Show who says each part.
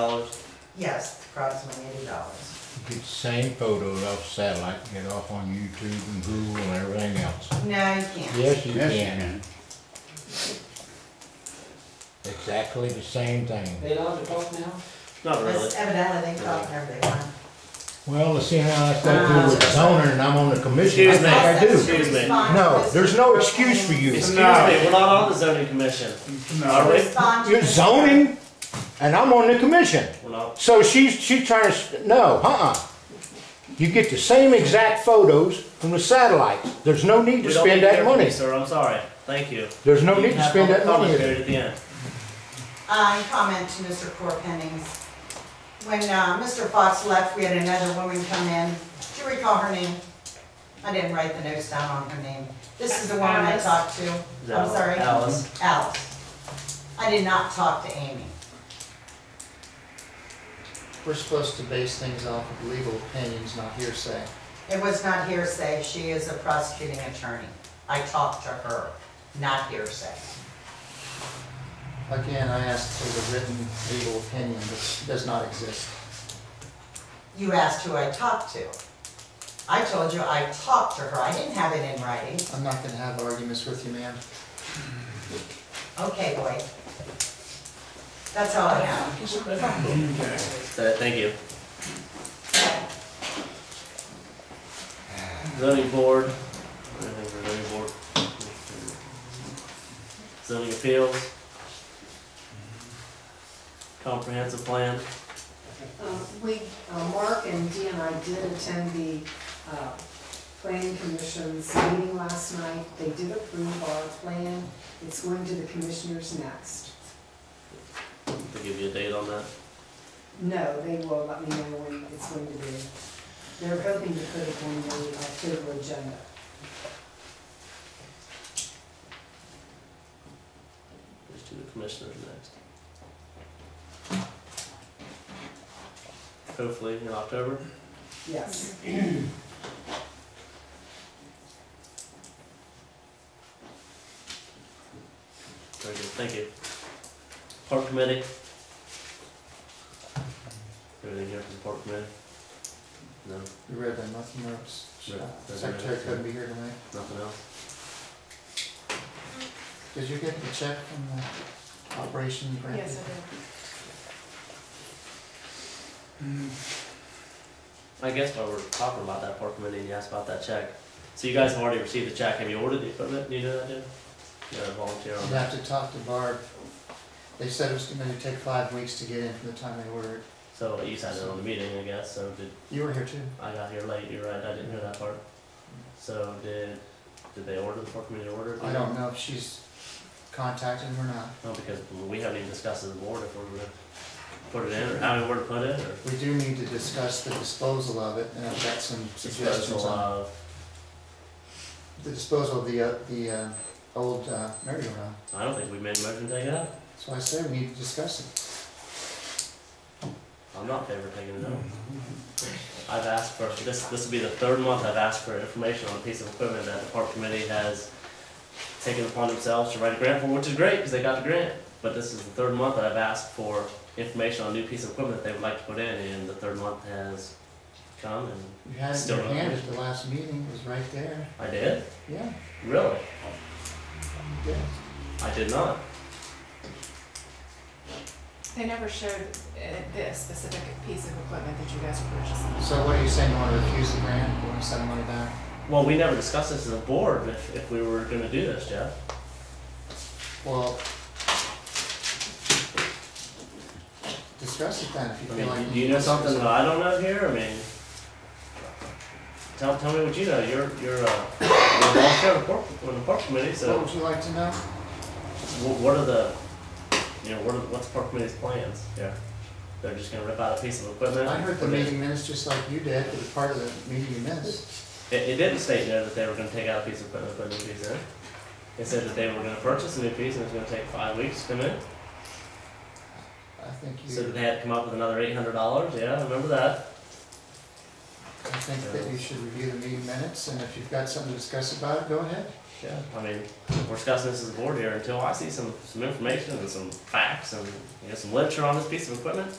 Speaker 1: dollars.
Speaker 2: Yes, approximately eighty dollars.
Speaker 3: Get the same photos off satellite, get off on YouTube and Google and everything else.
Speaker 2: No, you can't.
Speaker 3: Yes, you
Speaker 4: Yes, you
Speaker 3: can.
Speaker 4: can.
Speaker 3: Exactly the same thing.
Speaker 5: Eight dollars a pop now?
Speaker 1: Not really.
Speaker 2: That's evidently they call everyone.
Speaker 3: Well, let's see how I go through
Speaker 1: Ah.
Speaker 3: with the zoner and I'm on the commission. I
Speaker 1: Excuse
Speaker 3: think
Speaker 1: me.
Speaker 3: I do.
Speaker 1: Excuse me.
Speaker 3: No, there's no excuse for you.
Speaker 1: Excuse me,
Speaker 4: No.
Speaker 1: we're not on the zoning commission.
Speaker 4: No,
Speaker 1: Are we?
Speaker 2: uh, Respond to
Speaker 3: You're
Speaker 2: the-
Speaker 3: zoning and I'm on the commission.
Speaker 1: We're not.
Speaker 3: So she's, she's trying to, s- no, uh-uh. You get the same exact photos from the satellites. There's no need to
Speaker 1: We don't need
Speaker 3: spend
Speaker 1: to
Speaker 3: that
Speaker 1: hear from you,
Speaker 3: money.
Speaker 1: Sir, I'm sorry. Thank you.
Speaker 3: There's no
Speaker 1: You
Speaker 3: need to
Speaker 1: have
Speaker 3: spend
Speaker 1: public
Speaker 3: that money.
Speaker 1: comment period At the end.
Speaker 2: Uh, comment to Mr. Core Pennings. When, uh, Mr. Fox left, we had another woman come in. Do you recall her name? I didn't write the notes down on her name. This is the woman I
Speaker 6: Alice.
Speaker 2: talked to.
Speaker 1: Is that
Speaker 2: I'm
Speaker 1: all?
Speaker 2: sorry.
Speaker 1: Alice.
Speaker 2: Alice. I did not talk to Amy.
Speaker 5: We're supposed to base things off of legal opinions, not hearsay.
Speaker 2: It was not hearsay, she is a prosecuting attorney. I talked to her, not hearsay.
Speaker 5: Again, I asked for the written legal opinion, which does not exist.
Speaker 2: You asked who I talked to. I told you I talked to her, I didn't have it in writing.
Speaker 5: I'm not gonna have arguments with you, ma'am.
Speaker 2: Okay, boy. That's all I have.
Speaker 1: Uh, Thank you. Zoning board. Anything for zoning board? Zoning appeals. Comprehensive plan.
Speaker 6: Uh, We, uh, Mark and Dee and I did attend the uh, planning commission's meeting last night. They did approve our plan. It's going to the commissioners next.
Speaker 1: They'll give you a date on that.
Speaker 6: No, they will let me know when it's going to be. They're hoping to put it on the October agenda.
Speaker 1: Let's do the commissioners next. Hopefully in October.
Speaker 6: Yes.
Speaker 1: Very good, thank you. Park committee. Everything here from the park committee? No,
Speaker 5: You read that, nothing else.
Speaker 1: No,
Speaker 5: Uh,
Speaker 1: doesn't matter.
Speaker 5: Secretary couldn't be here tonight.
Speaker 1: nothing else?
Speaker 5: Did you get the check from the operation grant?
Speaker 1: I guess while we're talking about that park committee and you asked about that check, so you guys have already received the check, have you ordered the equipment, do you know that, Jim? You got a volunteer on
Speaker 5: You'd
Speaker 1: that?
Speaker 5: have to talk to Barb. They said it was gonna take five weeks to get in from the time they ordered.
Speaker 1: So you sat in on the meeting, I guess, so did,
Speaker 5: You were here too?
Speaker 1: I got here late, you're right, I didn't hear that part. So did, did they order, the park committee order? it?
Speaker 5: I don't know if she's contacted him or not.
Speaker 1: No, because we haven't even discussed as a board if we're gonna put it in, or how we were to put it, or.
Speaker 5: We do need to discuss the disposal of it, and I've got some suggestions
Speaker 1: disposal
Speaker 5: on
Speaker 1: of.
Speaker 5: the disposal of the, uh, the, uh, old, uh, merry-go-round.
Speaker 1: I don't think we made a motion to take it out.
Speaker 5: So I say we need to discuss it.
Speaker 1: I'm not in favor of taking it out. I've asked for, this, this will be the third month I've asked for information on a piece of equipment that the park committee has taken upon themselves to write a grant for, which is great, because they got the grant. But this is the third month that I've asked for information on a new piece of equipment that they would like to put in, and the third month has come, and
Speaker 5: You had it in
Speaker 1: Still
Speaker 5: your
Speaker 1: not.
Speaker 5: hand at the last meeting, it was right there.
Speaker 1: I did?
Speaker 5: Yeah,
Speaker 1: Really?
Speaker 5: yeah.
Speaker 1: I did not.
Speaker 7: They never showed uh, the specific piece of equipment that you guys were purchasing.
Speaker 5: So what are you saying, you wanna refuse the grant, you wanna send the money back?
Speaker 1: Well, we never discussed this as a board, if, if we were gonna do this, Jeff.
Speaker 5: Well, discuss it then, if you
Speaker 1: I
Speaker 5: feel
Speaker 1: mean,
Speaker 5: like.
Speaker 1: do you know
Speaker 5: need to
Speaker 1: something that
Speaker 5: discuss
Speaker 1: I don't know here? I mean, tell, tell me what you know. You're, you're, uh, you're on chair of the park, on the park committee,
Speaker 5: it. What
Speaker 1: so
Speaker 5: would you like to know?
Speaker 1: wh- what are the, you know, what are, what's the park committee's plans here? They're just gonna rip out a piece of equipment?
Speaker 5: I heard the
Speaker 1: put it-
Speaker 5: meeting minutes just like you did, it was part of the meeting you missed.
Speaker 1: It, it didn't state there that they were gonna take out a piece of equipment, and put a new piece in. It said that they were gonna purchase a new piece and it's gonna take five weeks to come in.
Speaker 5: I think you.
Speaker 1: So that they had to come up with another eight hundred dollars, yeah, I remember that.
Speaker 5: I think that you should review the meeting minutes, and if you've got something to discuss about it, go ahead.
Speaker 1: Yeah, I mean, we're discussing this as a board here, until I see some, some information and some facts and, you know, some literature on this piece of equipment,